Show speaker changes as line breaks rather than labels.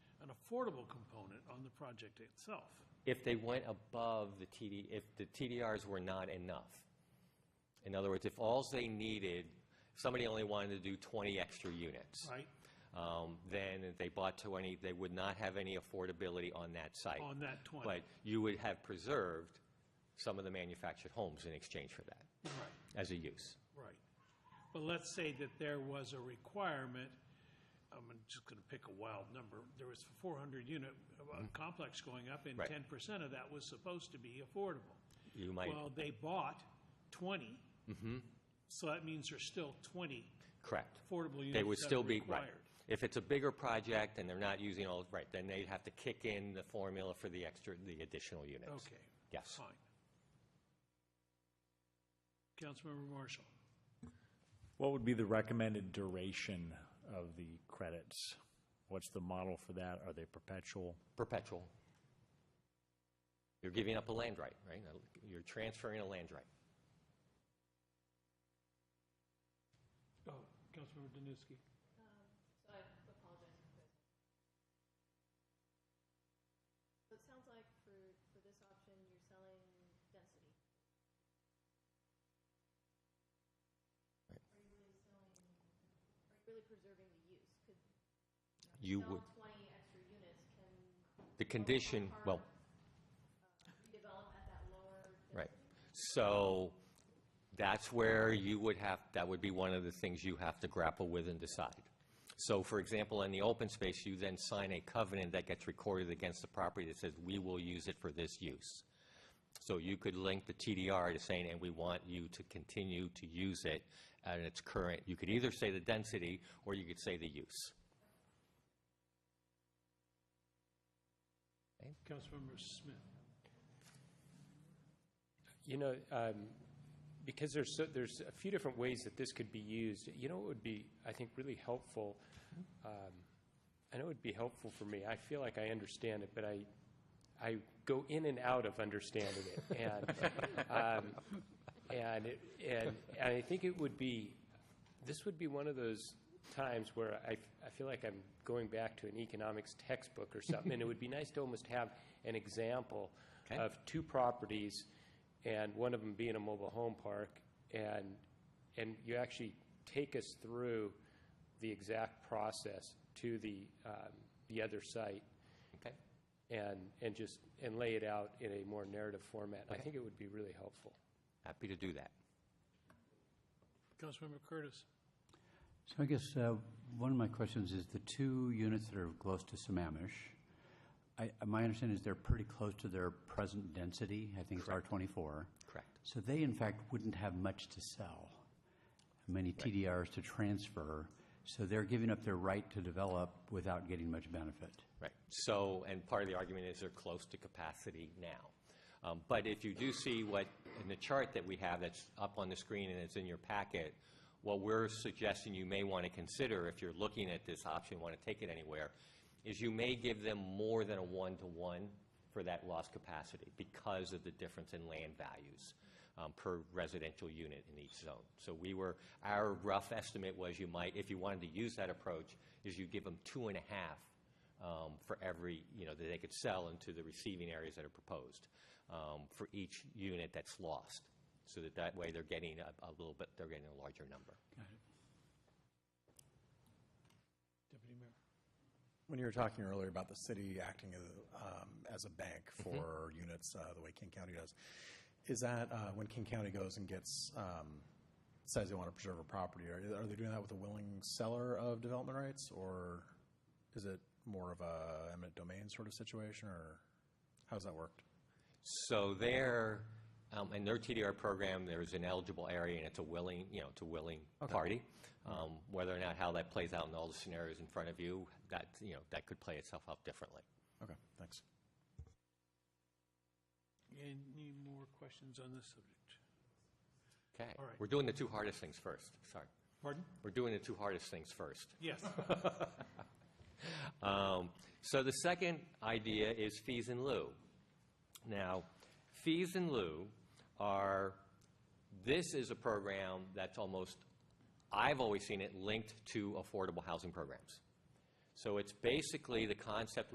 affordable component on the project itself.
if they went above the TD, if the TDRs were not enough. In other words, if alls they needed, somebody only wanted to do 20 extra units.
Right.
um, Then if they bought 20, they would not have any affordability on that site.
On that 20.
But you would have preserved some of the manufactured homes in exchange for that,
Right,
as a use.
right. But let's say that there was a requirement, I'm just going to pick a wild number, there was a 400-unit uh, complex going up, and
Mm-hmm. Right.
10% of that was supposed to be affordable.
You might,
Well, they bought 20.
Mm-hmm.
So that means there's still 20
correct.
affordable units
They would
that
still
are
be, right.
required.
If it's a bigger project and they're not using all, right, then they'd have to kick in the formula for the extra, the additional units.
Okay.
Yes.
Fine. Councilmember Marshall,
What would be the recommended duration of the credits? What's the model for that? Are they perpetual?
perpetual. You're giving up a land right, right? You're transferring a land right.
oh, Councilmember Danuski.
Um, So I apologize for this. So it sounds like for, for this option, you're selling density.
Right.
Are you really selling, are you really preserving the use? Could
You
sell
would,
Twenty extra units can uh,
the condition, well,
redevelop at that lower.
right. So that's where you would have, that would be one of the things you have to grapple with and decide. So for example, in the open space, you then sign a covenant that gets recorded against the property that says, we will use it for this use. So you could link the TDR to saying, and we want you to continue to use it at its current, you could either say the density or you could say the use.
Councilmember Smith.
You know, um, because there's, so- there's a few different ways that this could be used, you know what would be, I think, really helpful? Um, I know it would be helpful for me. I feel like I understand it, but I, I go in and out of understanding it. And, um, and, it- and and I think it would be, this would be one of those times where I, I feel like I'm going back to an economics textbook or something. And it would be nice to almost have an example
Okay.
of two properties, and one of them being a mobile home park, and, and you actually take us through the exact process to the, um, the other site,
Okay?
and, and just, and lay it out in a more narrative format. I think it would be really helpful.
Happy to do that.
Councilmember Curtis.
So I guess uh, one of my questions is the two units that are close to Sammamish, I, my understanding is they're pretty close to their present density. I think it's R24.
Correct.
So they, in fact, wouldn't have much to sell, many TDRs to transfer. So they're giving up their right to develop without getting much benefit.
Right. So, and part of the argument is they're close to capacity now. Um, But if you do see what, in the chart that we have that's up on the screen and it's in your packet, what we're suggesting you may want to consider if you're looking at this option, want to take it anywhere, is you may give them more than a one-to-one for that lost capacity because of the difference in land values um, per residential unit in each zone. So we were, our rough estimate was you might, if you wanted to use that approach, is you give them two and a half um, for every, you know, that they could sell into the receiving areas that are proposed um, for each unit that's lost. So that that way they're getting a a little bit, they're getting a larger number.
Deputy Mayor.
When you were talking earlier about the city acting as, um, as a bank for units, uh, the way King County does, is that, uh, when King County goes and gets, um, says they want to preserve a property, are, are they doing that with a willing seller of development rights? Or is it more of a eminent domain sort of situation, or how's that worked?
So their, um, in their TDR program, there's an eligible area and it's a willing, you know, it's a willing party. Um, Whether or not how that plays out in all the scenarios in front of you, that, you know, that could play itself out differently.
Okay, thanks.
Any more questions on this subject?
Okay.
All right.
We're doing the two hardest things first, sorry.
Pardon?
We're doing the two hardest things first.
Yes.
Um, So the second idea is fees in lieu. Now, fees in lieu are, this is a program that's almost, I've always seen it linked to affordable housing programs. So it's basically the concept